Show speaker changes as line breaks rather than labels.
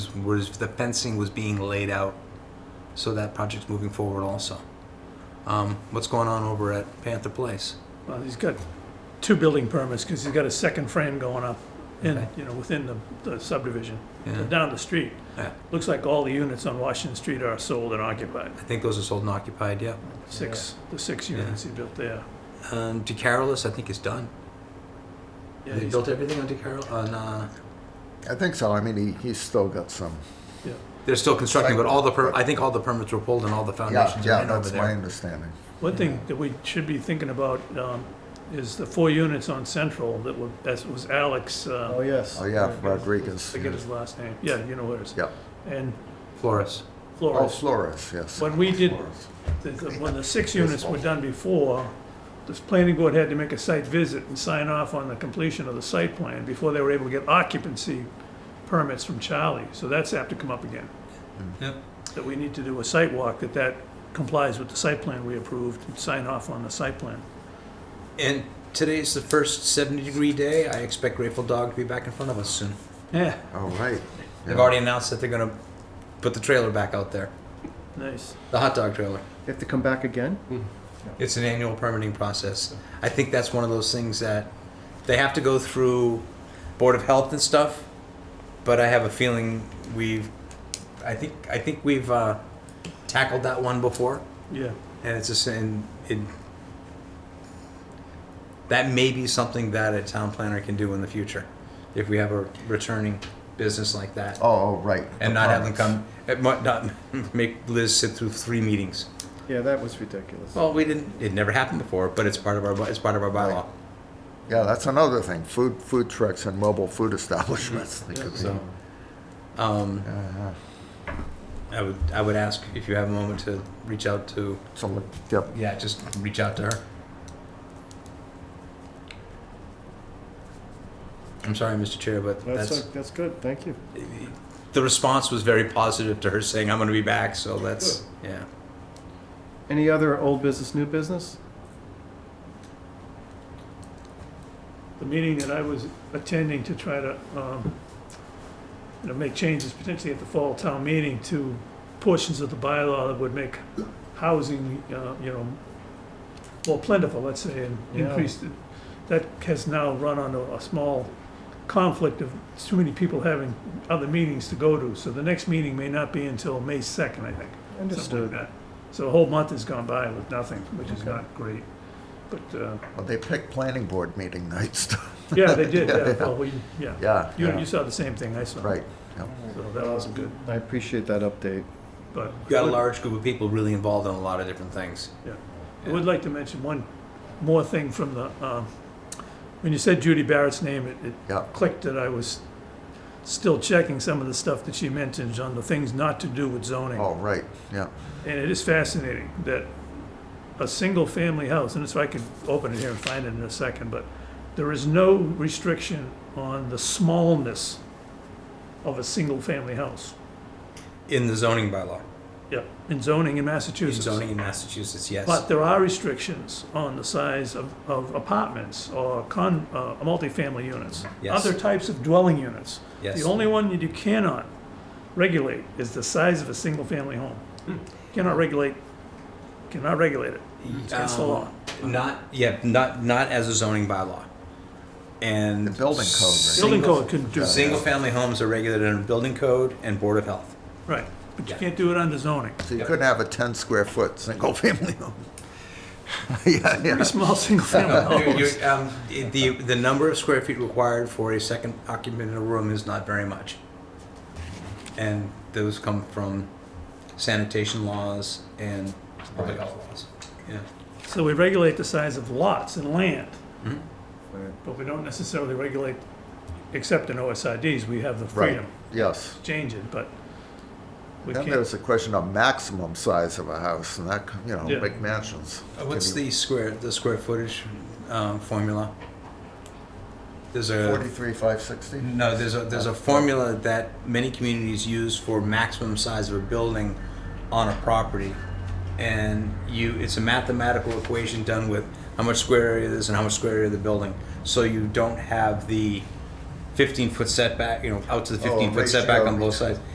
was the fencing was being laid out, so that project's moving forward also. Um, what's going on over at Panther Place?
Well, he's got two building permits, because he's got a second frame going up in,
Okay.
you know, within the- the subdivision,
Yeah.
down the street.
Yeah.
Looks like all the units on Washington Street are sold and occupied,
I think those are sold and occupied, yeah.
six, the six units he built there.
Um, DeCarolis, I think is done.
Yeah,
they
he's-
built everything on DeCarol, on, uh,
I think so. I mean, he, he's still got some.
yeah.
they're still constructing, but all the, per- I think all the permits were pulled and all the
Yeah,
foundations are
yeah,
in over
that's my
there.
understanding.
One thing that we should be thinking about um, is the four units on Central that were, that was Alex, uh,
Oh, yes.
Oh, yeah, Rodriguez.
forget his last name, yeah, you know what it is.
Yeah.
And
Flores.
Oh,
Flores.
Flores, yes.
When we did,
Flores.
the- the- when the six units were done before, this planning board had to make a site visit and sign off on the completion of the site plan before they were able to get occupancy permits from Charlie, so that's apt to come up again.
Yep.
That we need to do a site walk, that that complies with the site plan we approved, and sign off on the site plan.
And today's the first 70 degree day. I expect Grateful Dog to be back in front of us soon.
Yeah,
All Oh, right.
They've
Yeah.
already announced that they're going to put the trailer back out there,
nice.
the hot dog trailer.
They have to come back again?
It's an annual permitting process. I think that's one of those things that they have to go through Board of Health and stuff, but I have a feeling we've, I think, I think we've uh, tackled that one before,
Yeah,
and it's just, and it, that may be something that a town planner can do in the future, if we have a returning business like that.
Oh, oh, right.
And
the
not have them
permits.
come, it might not make Liz sit through three meetings.
Yeah, that was ridiculous.
Well, we didn't. It never happened before, but it's part of our. It's part of our bylaw.
Yeah, that's another thing. Food, food trucks and mobile food establishments. They could be-
So, um,
Yeah, yeah.
I would. I would ask if you have a moment to reach out to.
So, look, yep.
Yeah, just reach out to her. I'm sorry, Mr. Chair, but that's,
That's, uh, that's good, thank you.
the response was very positive to her saying, "I'm going to be back." So that's yeah.
Any other old business, new business?
the meeting that I was attending to try to, um, you know, make changes potentially at the fall town meeting to portions of the bylaw that would make housing, uh, you know, more plentiful, let's say, and
Yeah.
increase, the- that has now run onto a small conflict of too many people having other meetings to go to, so the next meeting may not be until May second, I think. something like
Understood.
that. So a whole month has gone by with nothing, which is
Okay.
not great, but, uh,
Well, they picked planning board meeting nights.
yeah, they did, yeah, well, we, yeah.
Yeah,
You,
Yeah.
you saw the same thing I saw.
right. Yep.
So that wasn't good,
I appreciate that update.
but
You got a large group of people really involved in a lot of different things.
I would like to mention one more thing from the, um, when you said Judy Barrett's name, it, it
Yeah.
clicked that I was still checking some of the stuff that she mentioned on the things not to do with zoning.
Oh, right. Yeah.
And it is fascinating that a single-family house, and if I could open it here and find it in a second, but there is no restriction on the smallness of a single-family house.
In the zoning bylaw,
Yeah, in zoning in
in
Massachusetts.
zoning in Massachusetts, yes.
But there are restrictions on the size of, of apartments or con, uh, multifamily units.
Yes.
Other types of dwelling units.
yes.
The only one that you cannot regulate is the size of a single-family home.
Hmm.
Cannot regulate, cannot regulate it. It's against the
Um,
law.
Not, yeah, not, not as a zoning bylaw. And.
The building code, right?
Building
single-
code couldn't do that,
Single-family homes are regulated under building code and Board of Health.
right, but you
Yeah.
can't do it under zoning.
So you couldn't have a 10 square foot single family home. yeah, yeah.
Very small
Oh.
single-family
You-
homes.
you- um, The, the number of square feet required for a second occupant in a room is not very much. And those come from sanitation laws and public health laws. Yeah,
So we regulate the size of lots and land,
Mhm.
but we don't necessarily regulate, except in OSIDs, we have the
Right.
freedom.
Yes.
change it, but we
Then
can't.
there's the question of maximum size of a house and that, you know,
Yeah.
big mansions.
Uh, What's the square, the square footage, um, formula? There's a.
43,560?
uh, No, there's a, there's a formula that many communities use for maximum size of a building on a property. And you, it's a mathematical equation done with how much square area it is and how much square area of the building. So you don't have the fifteen foot setback, you know, out to the
Oh,
fifteen foot
ratio
setback on both
between-
sides.